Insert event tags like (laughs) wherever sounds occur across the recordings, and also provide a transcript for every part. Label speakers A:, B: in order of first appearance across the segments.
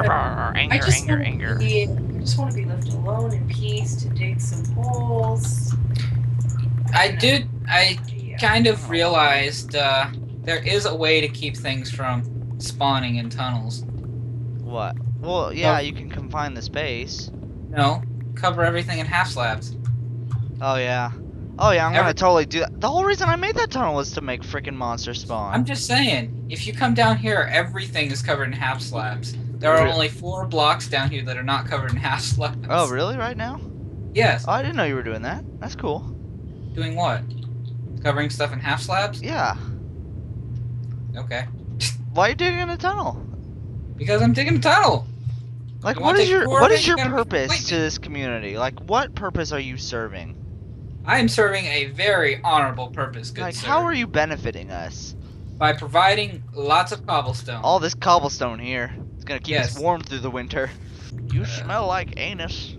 A: more anger,
B: I just
A: anger,
B: want
A: anger.
B: to be. I just want to be left alone in peace to dig some holes.
C: I did. I
B: Yeah.
C: kind of realized uh, there is a way to keep things from spawning in tunnels.
D: What? Well, yeah, you can confine the space.
C: No, cover everything in half slabs.
D: Oh yeah. Oh yeah, I'm
C: Every-
D: gonna totally do that. The whole reason I made that tunnel was to make freaking monsters spawn.
C: I'm just saying, if you come down here, everything is covered in half slabs. There are
D: Re-
C: only four blocks down here that are not covered in half (laughs) slabs.
D: Oh really? Right now?
C: Yes.
D: Oh, I didn't know you were doing that. That's cool.
C: Doing what? Covering stuff in half slabs?
D: Yeah.
C: Okay.
D: Why are you digging a tunnel?
C: Because I'm digging a tunnel.
D: Like,
C: You
D: what
C: wanna
D: is
C: take
D: your
C: four
D: what
C: of it?
D: is
C: You
D: your
C: gotta fight
D: purpose
C: me.
D: to this community? Like, what purpose are you serving?
C: I am serving a very honorable purpose, good
D: like,
C: sir.
D: how are you benefiting us?
C: By providing lots of cobblestone.
D: All this cobblestone here. It's gonna keep us
C: Um, Yes.
D: warm through the winter. You
C: Uh.
D: smell like anus.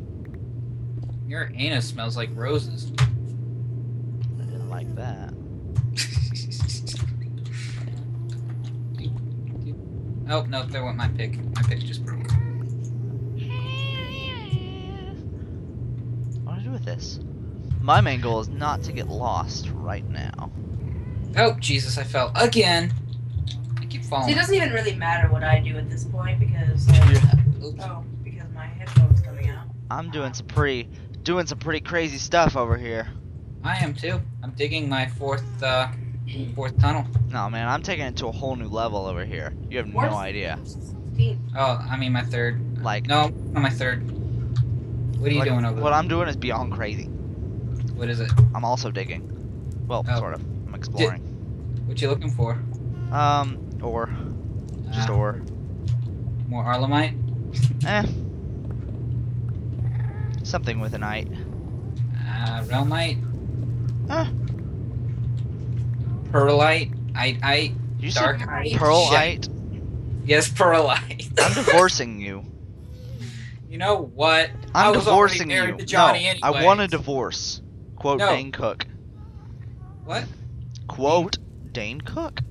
C: Your anus smells like roses.
D: I didn't like that.
C: (laughs) oh no, there went my pick. My pick just broke.
D: What do I do with this? My main goal is not to get lost right now.
C: Oh Jesus, I fell again. I keep
B: So it
C: falling.
B: doesn't even really matter what I do at this point because
C: Oops.
B: oh, because my headphones coming out.
D: I'm doing some pretty doing some pretty crazy stuff over here.
C: I am too. I'm digging my fourth uh, fourth tunnel.
D: No man, I'm taking it to a whole new level over here. You have
B: Where's-
D: no idea.
C: Oh, I mean my third.
D: Like
C: No, not my third. What are you
D: like,
C: doing over
D: What
C: there?
D: I'm doing is beyond crazy.
C: What is it?
D: I'm also digging. Well,
C: Oh.
D: sort of. I'm exploring.
C: What you looking for?
D: Um, or just
C: Ah,
D: or.
C: more Arlemite?
D: Eh. Something with an eye.
C: Uh, Realmite?
D: Huh.
C: Perlite? I I
D: You
C: dark
D: said
B: Darkite.
C: (laughs)
D: pearlite.
C: Yes, perlite.
D: I'm divorcing you.
C: You know what? I
D: I'm
C: was already
D: divorcing
C: married
D: you.
C: to Johnny
D: no,
C: anyways.
D: I want a divorce. Quote
C: No.
D: Dane Cook.
C: What?
D: Quote Dane Cook.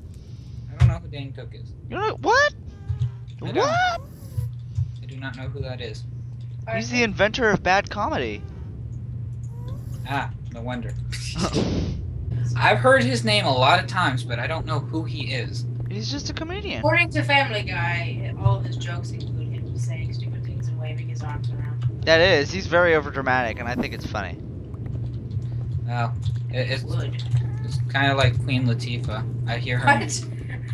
C: I don't know who Dane Cook is.
D: You know what?
C: I don't.
D: What?
C: I do not know who that is.
D: He's the inventor of bad
C: (laughs)
D: comedy.
C: Ah, no wonder. I've heard his name a lot of times, but I don't know who he is.
D: He's just a comedian.
B: According to Family Guy, all of his jokes include him saying stupid things and waving his arms around.
D: That is. He's very overdramatic, and I think it's funny.
C: Well, it, it's,
B: Would.
C: it's kind of like Queen Latifah. I hear her.
B: (laughs)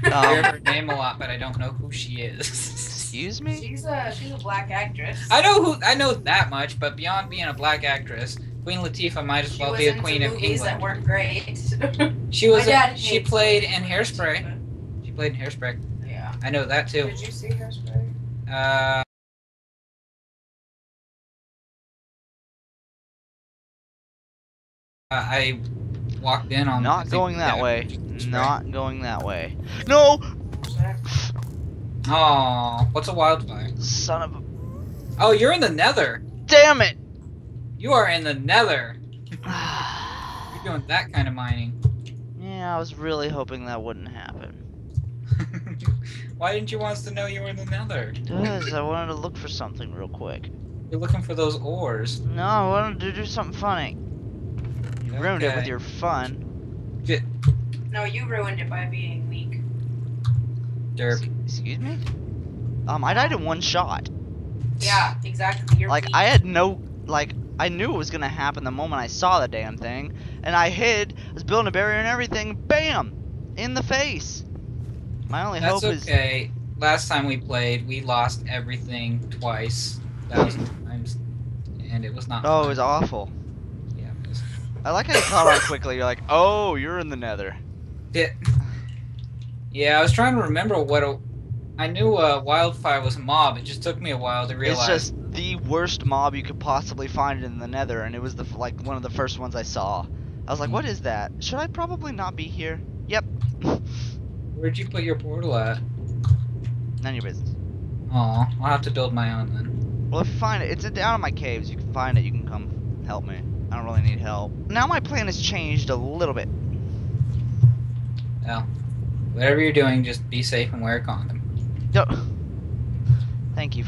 B: What?
C: I
B: (laughs)
C: hear
D: Um, (laughs)
C: her name a lot, but I don't know who she is.
D: Excuse me.
B: she's a she's a black actress.
C: (laughs) I know who I know that much, but beyond being a black actress, Queen Latifah might as
B: she
C: well
B: was
C: be the
B: into
C: queen of
B: movies that
C: England.
B: weren't great.
C: She was.
B: My
C: A,
B: dad
C: she
B: hates
C: played in Hairspray. She played in Hairspray.
B: Yeah.
C: I know that too.
B: Did you see Hairspray?
C: Uh, I walked in on. Um, I
D: Not
C: think
D: going that way.
C: Hairspray.
D: Not going that way. No,
C: Oh, what's a wildfire?
D: son of a.
C: Oh, you're in the Nether.
D: Damn it. (sighs)
C: You are in the Nether. You're doing that kind of mining. (laughs)
D: Yeah, I was really hoping that wouldn't happen.
C: Why didn't you want us to know you were in the Nether?
D: Because I wanted to look for something real quick.
C: You're looking for those ores.
D: No, I wanted to do something funny. You ruined it with
C: Okay.
D: your fun.
B: No, you ruined it by being weak.
C: Derp.
D: Excuse me? Um, I died in one shot.
B: Yeah, exactly. You're
D: Like,
B: weak.
D: I had no. Like, I knew it was gonna happen the moment I saw the damn thing. And I hid, I was building a barrier and everything. Bam! In the face. My only
C: That's
D: hope is.
C: okay. Last time we played, we lost everything twice, thousand times, and it was not.
D: Oh, it
C: fun.
D: was awful.
C: Yeah, it was-
D: I like how you caught on quickly. You're like, oh, you're in the nether.
C: Yeah. Yeah, I was trying to remember what a. I knew uh, wildfire was a mob. It just took me a while to realize.
D: It's just the worst mob you could possibly find in the Nether, and it was the f- like one of the first ones I saw. I was like, "What is that? Should I probably not be here?" Yep.
C: Where'd you put your portal at?
D: None of your business.
C: Oh, I'll have to build my own then.
D: Well, if you find it, it's down in my caves. You can find it. You can come help me. I don't really need help. Now my plan has changed a little bit.
C: Whatever you're doing, just be safe and wear a condom.
D: Don't- (sighs) Thank you